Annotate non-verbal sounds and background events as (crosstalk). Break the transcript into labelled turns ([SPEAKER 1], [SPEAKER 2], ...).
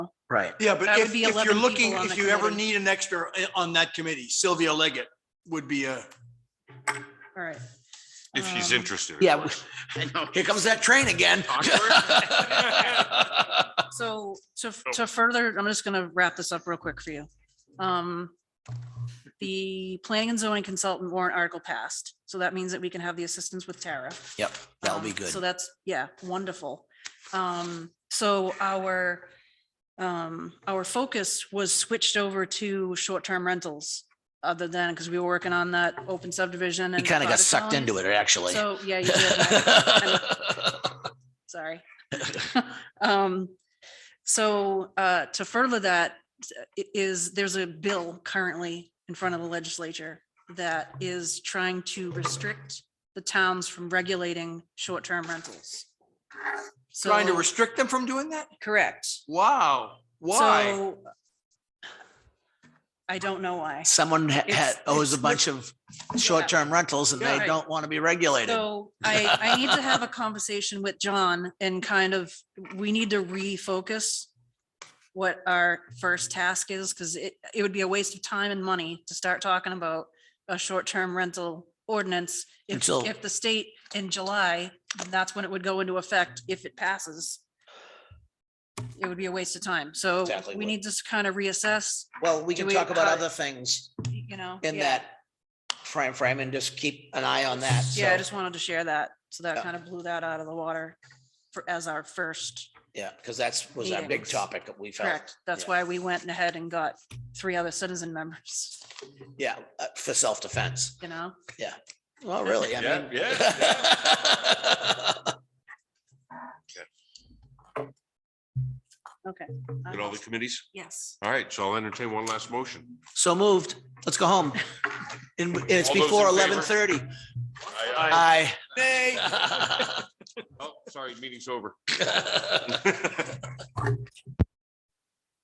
[SPEAKER 1] Right.
[SPEAKER 2] Yeah, but
[SPEAKER 3] That would
[SPEAKER 2] if,
[SPEAKER 3] be
[SPEAKER 2] if
[SPEAKER 3] 11
[SPEAKER 2] you're
[SPEAKER 3] people
[SPEAKER 2] looking,
[SPEAKER 3] on
[SPEAKER 2] if
[SPEAKER 3] the
[SPEAKER 2] you ever
[SPEAKER 3] committee.
[SPEAKER 2] need an extra eh, on that committee, Sylvia Leggett would be a,
[SPEAKER 3] All right.
[SPEAKER 4] If she's
[SPEAKER 3] Um,
[SPEAKER 4] interested. of
[SPEAKER 1] Yeah. (laughs)
[SPEAKER 4] course.
[SPEAKER 1] I know. Here comes that train again.
[SPEAKER 3] So to, to further, I'm just gonna wrap this up real quick for you. Um, the planning and zoning consultant warrant article passed, so that means that we can have the assistance with Tara.
[SPEAKER 1] Yep, (laughs) that'll be
[SPEAKER 3] Um,
[SPEAKER 1] good.
[SPEAKER 3] So that's, yeah, wonderful. Um, so our, um, our focus was switched over to short-term rentals. Other than, because we were working on that open subdivision.
[SPEAKER 1] You kind of got sucked into it, actually.
[SPEAKER 3] So, yeah.
[SPEAKER 1] (laughs)
[SPEAKER 3] you did, Matt.
[SPEAKER 2] (laughs)
[SPEAKER 3] Sorry. (laughs) Um, so, uh, to further that i- is, there's a bill currently in front of the legislature that is trying to restrict the towns from regulating short-term rentals.
[SPEAKER 2] trying to
[SPEAKER 3] So-
[SPEAKER 2] restrict them from doing that?
[SPEAKER 3] Correct.
[SPEAKER 2] Wow, why?
[SPEAKER 3] So I don't know why.
[SPEAKER 1] Someone ha-
[SPEAKER 3] It's-
[SPEAKER 1] ha- owes a
[SPEAKER 3] it's
[SPEAKER 1] bunch of short-term rentals and
[SPEAKER 2] Yeah.
[SPEAKER 1] they don't want to be regulated. (laughs)
[SPEAKER 3] So I, I need to have a conversation with John and kind of, we need to refocus what our first task is, because it, it would be a waste of time and money to start talking about a short-term rental ordinance. If,
[SPEAKER 1] Until-
[SPEAKER 3] if the state in July, that's when it would go into effect if it passes. It would be a waste of time. So
[SPEAKER 1] Exactly
[SPEAKER 3] we
[SPEAKER 1] what-
[SPEAKER 3] need to s- kind of reassess,
[SPEAKER 1] Well, we
[SPEAKER 3] Do
[SPEAKER 1] can
[SPEAKER 3] we
[SPEAKER 1] talk about
[SPEAKER 3] cut-
[SPEAKER 1] other things
[SPEAKER 3] you know.
[SPEAKER 1] in
[SPEAKER 3] yeah.
[SPEAKER 1] that frame frame and just keep an eye on that.
[SPEAKER 3] Yeah, I
[SPEAKER 1] so-
[SPEAKER 3] just wanted to share that. So that
[SPEAKER 1] Yeah.
[SPEAKER 3] kind of blew that out of the water for, as our first,
[SPEAKER 1] Yeah, because that's was our big
[SPEAKER 3] Meetings.
[SPEAKER 1] topic that we felt.
[SPEAKER 3] correct. That's
[SPEAKER 1] yeah.
[SPEAKER 3] why we went ahead and got three other citizen members,
[SPEAKER 1] Yeah, uh, for self-defense.
[SPEAKER 3] you know?
[SPEAKER 1] Well, really, I
[SPEAKER 4] Yeah,
[SPEAKER 1] mean. uh,
[SPEAKER 4] yeah,
[SPEAKER 1] (laughs)
[SPEAKER 3] I
[SPEAKER 4] At all the committees.
[SPEAKER 3] Uh, Yes.
[SPEAKER 4] All right, so I'll entertain one last motion.
[SPEAKER 1] So moved. Let's go
[SPEAKER 4] (laughs)
[SPEAKER 1] home. And and it's
[SPEAKER 4] All those in
[SPEAKER 1] before
[SPEAKER 4] favor?
[SPEAKER 1] eleven thirty.
[SPEAKER 4] Aye,
[SPEAKER 1] Aye.
[SPEAKER 2] Nay.
[SPEAKER 3] (laughs)
[SPEAKER 4] (laughs)
[SPEAKER 1] (laughs)
[SPEAKER 4] aye. Oh, sorry, meeting's over.